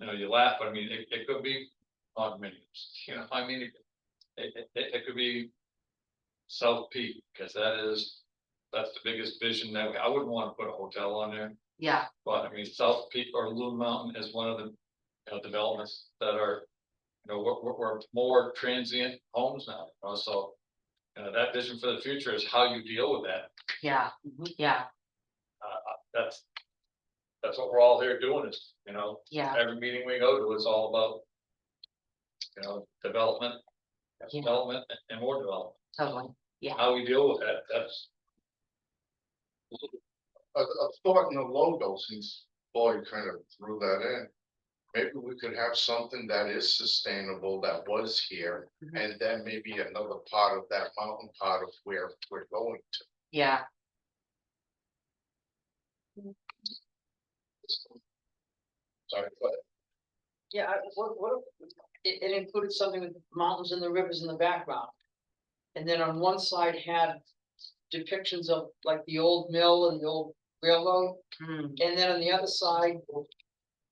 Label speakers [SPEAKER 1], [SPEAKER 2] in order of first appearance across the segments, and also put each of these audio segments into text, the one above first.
[SPEAKER 1] you know, you laugh, but I mean, it, it could be condominiums, you know, I mean, it, it, it, it could be. South Peak, because that is, that's the biggest vision that, we- I wouldn't want to put a hotel on there,
[SPEAKER 2] yeah,
[SPEAKER 1] but I mean, South Peak or Loon Mountain is one of the. You know, developments that are, you know, we're, we're, we're more transient homes now, you know, so. You know, that vision for the future is how you deal with that,
[SPEAKER 2] yeah, mm-hmm, yeah,
[SPEAKER 1] that's. That's what we're all here doing is, you know,
[SPEAKER 2] yeah,
[SPEAKER 1] every meeting we go to is all about. You know, development,
[SPEAKER 2] Yeah.
[SPEAKER 1] development and more development,
[SPEAKER 2] totally.
[SPEAKER 1] how we deal with that, that's.
[SPEAKER 3] a, a thought in the logo, since Boyd kind of threw that in. Maybe we could have something that is sustainable that was here,
[SPEAKER 2] Mhm.
[SPEAKER 3] and then maybe another part of that mountain part of where we're going to.
[SPEAKER 2] Yeah,
[SPEAKER 3] Sorry, but
[SPEAKER 4] Yeah, I- what, what, if- it, it included something with mountains and the rivers in the background. And then on one side had depictions of like the old mill and the old railroad,
[SPEAKER 2] mm,
[SPEAKER 4] and then on the other side.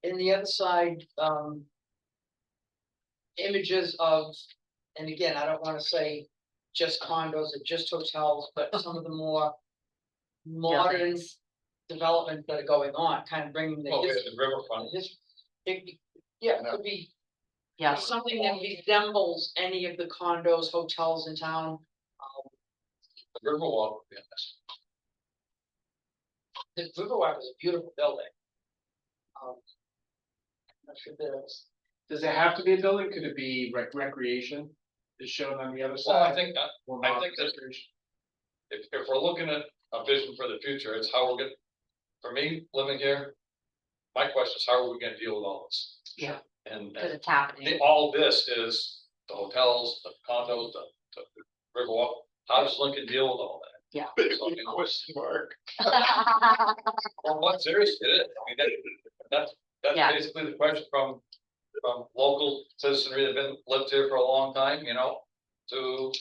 [SPEAKER 4] In the other side, um. Images of, and again, I don't wanna say just condos or just hotels, but some of the more. Modern
[SPEAKER 2] Buildings.
[SPEAKER 4] developments that are going on, kind of bringing the
[SPEAKER 1] Well, we have
[SPEAKER 4] history,
[SPEAKER 1] the riverfront,
[SPEAKER 4] his- it be- yeah, it
[SPEAKER 3] No.
[SPEAKER 4] could be
[SPEAKER 2] yeah,
[SPEAKER 4] something that resembles any of the condos, hotels in town.
[SPEAKER 1] the riverwalk, would be nice.
[SPEAKER 4] The Riverwalk is a beautiful building. Um, I'm not sure if there's-
[SPEAKER 5] Does it have to be a building? Could it be rec- recreation? Is shown on the other side?
[SPEAKER 1] Well, I think uh, that,
[SPEAKER 5] or
[SPEAKER 1] I
[SPEAKER 5] not
[SPEAKER 1] think that-
[SPEAKER 5] recreation?
[SPEAKER 1] if, if we're looking at a vision for the future, it's how we're gonna, for me, living here. My question is, how are we gonna deal with all this?
[SPEAKER 2] Yeah.
[SPEAKER 1] And,
[SPEAKER 2] because
[SPEAKER 1] and
[SPEAKER 2] it's happening.
[SPEAKER 1] the- all this is the hotels, the condos, the, the riverwalk, how does Lincoln deal with all that?
[SPEAKER 2] Yeah.
[SPEAKER 1] Big question mark. Well, what seriously, it is. I mean, that- that's,
[SPEAKER 2] Yeah.
[SPEAKER 1] that's basically the question from, from local citizenry that been, lived here for a long time, you know, to.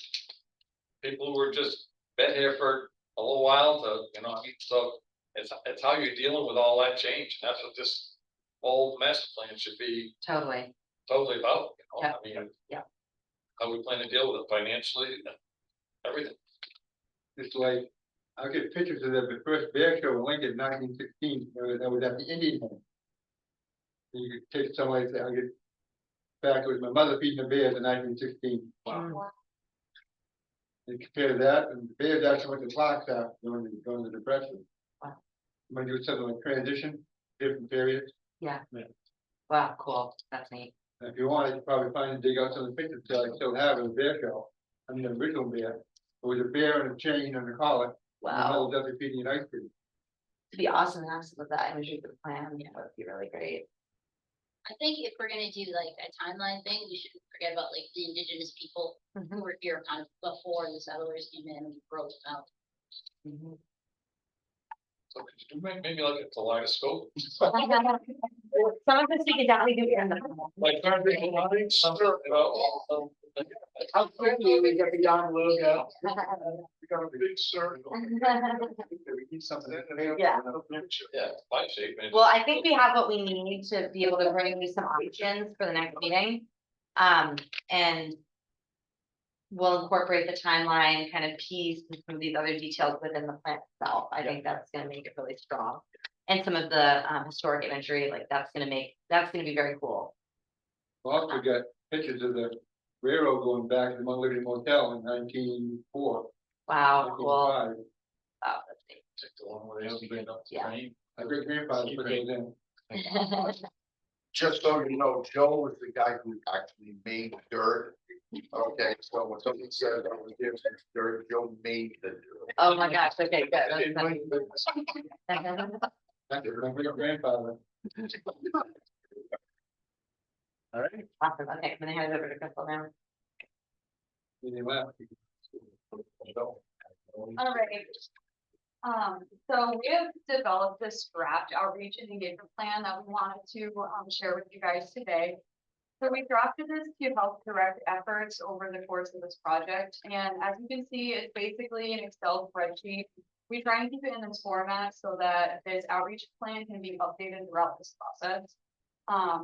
[SPEAKER 1] People who were just been here for a little while to, you know, I mean, so it's, it's how you're dealing with all that change, and that's what this. Old master plan should be
[SPEAKER 2] Totally,
[SPEAKER 1] totally about, you know, I mean.
[SPEAKER 2] yeah.
[SPEAKER 1] How we plan to deal with it financially, and everything,
[SPEAKER 6] It's like, I'll get pictures of that, the first bear show in Lincoln nineteen sixteen, that was- that was at the Indian Home. And You could take somebody, say, I'll get, back, it was my mother feeding the bears in nineteen sixteen.
[SPEAKER 2] Wow.
[SPEAKER 6] And compare that, and the bears actually went to clocks out during, the- during the depression.
[SPEAKER 2] Wow.
[SPEAKER 6] When you do something like transition, different periods,
[SPEAKER 2] wow, cool, that's neat.
[SPEAKER 6] and if you want, you could probably find and dig out some of the pictures that I still have of the bear show. I mean, the original bear, it was a bear and a chain and a collar, and the
[SPEAKER 2] Wow,
[SPEAKER 6] whole W P D and ice cream.
[SPEAKER 2] it'd be awesome to have some of that imagery for the plan, yeah, that'd be really great.
[SPEAKER 7] I think if we're gonna do like a timeline thing, we shouldn't forget about like the indigenous people who
[SPEAKER 2] Mhm,
[SPEAKER 7] were here kind of before the settlers came in and broke um, out.
[SPEAKER 2] mhm.
[SPEAKER 1] so could you do may- maybe like a kaleidoscope?
[SPEAKER 2] Some of this we could definitely do in the.
[SPEAKER 1] Like, turn people on, something, you know,
[SPEAKER 4] How quickly we get beyond logo.
[SPEAKER 3] we got a big circle. We need something in there.
[SPEAKER 2] Mm-hmm. Yeah.
[SPEAKER 1] yeah, it's my shape, man.
[SPEAKER 2] Well, I think we have what we need to be able to bring you some options for the next meeting. Um, and. We'll incorporate the timeline kind of piece and some of these other details within the plan itself. I think that's gonna make it really strong. And some of the um historic imagery, like that's gonna make, that's gonna be very cool.
[SPEAKER 6] Also got pictures of the railroad going back to the Mount Liberty Motel in nineteen four.
[SPEAKER 2] Wow, cool.
[SPEAKER 1] uh,
[SPEAKER 2] Wow, that's neat.
[SPEAKER 1] Take the one where they open it up. to
[SPEAKER 2] Yeah.
[SPEAKER 1] rain.
[SPEAKER 6] My great grandfather put those in.
[SPEAKER 3] Just so you know, Joe was the guy who actually made dirt. Okay, so when somebody said that was there, dirt, Joe made the dirt.
[SPEAKER 2] Oh my gosh, okay, good.
[SPEAKER 3] And it
[SPEAKER 2] That's-
[SPEAKER 3] might have been
[SPEAKER 6] That's my great grandfather. All right,
[SPEAKER 2] Awesome, okay, I'm gonna hand it over to Crystal now.
[SPEAKER 6] and he left.
[SPEAKER 8] All right. Um, so we have developed this draft outreach and engagement plan that we wanted to, um, share with you guys today. So we drafted this to help direct efforts over the course of this project, and as you can see, it's basically an Excel spreadsheet. We try and keep it in this format so that this outreach plan can be updated throughout this process. Um,